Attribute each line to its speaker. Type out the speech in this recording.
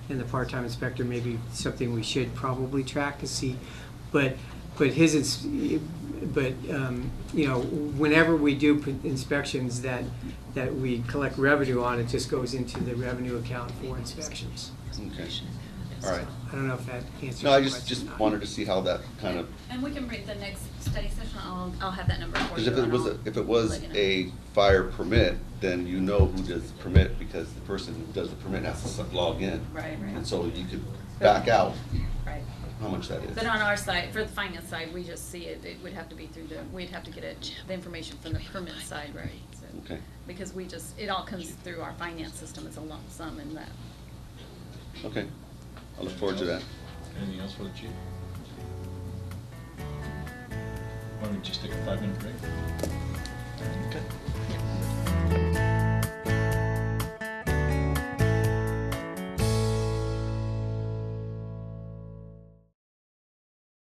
Speaker 1: and the part-time inspector may be something we should probably track to see. But, but his, ins- but, um, you know, whenever we do p- inspections that, that we collect revenue on, it just goes into the revenue account for inspections.
Speaker 2: Okay, all right.
Speaker 1: I don't know if that answers
Speaker 2: No, I
Speaker 1: your
Speaker 2: just,
Speaker 1: question.
Speaker 2: just wanted to see how that kind of,
Speaker 3: And we can bring the next study session, I'll, I'll have that number for
Speaker 2: because
Speaker 3: you.
Speaker 2: if it
Speaker 3: and
Speaker 2: was,
Speaker 3: I'll
Speaker 2: a- if it was
Speaker 3: let you know.
Speaker 2: a fire permit, then you know who does the permit, because the person who does the permit has to s- log in.
Speaker 3: Right,
Speaker 2: And
Speaker 3: right,
Speaker 2: so you could back out
Speaker 3: right.
Speaker 2: how much that is.
Speaker 3: But on our side, for the finance side, we just see it, it would have to be through the, we'd have to get it, the information from the permit side, right? so-
Speaker 2: Okay.
Speaker 3: Because we just, it all comes through our finance system, it's a lump sum and that.
Speaker 2: Okay, I look forward to that.
Speaker 4: Anything else for the chief? Why don't we just take a five-minute break? Okay.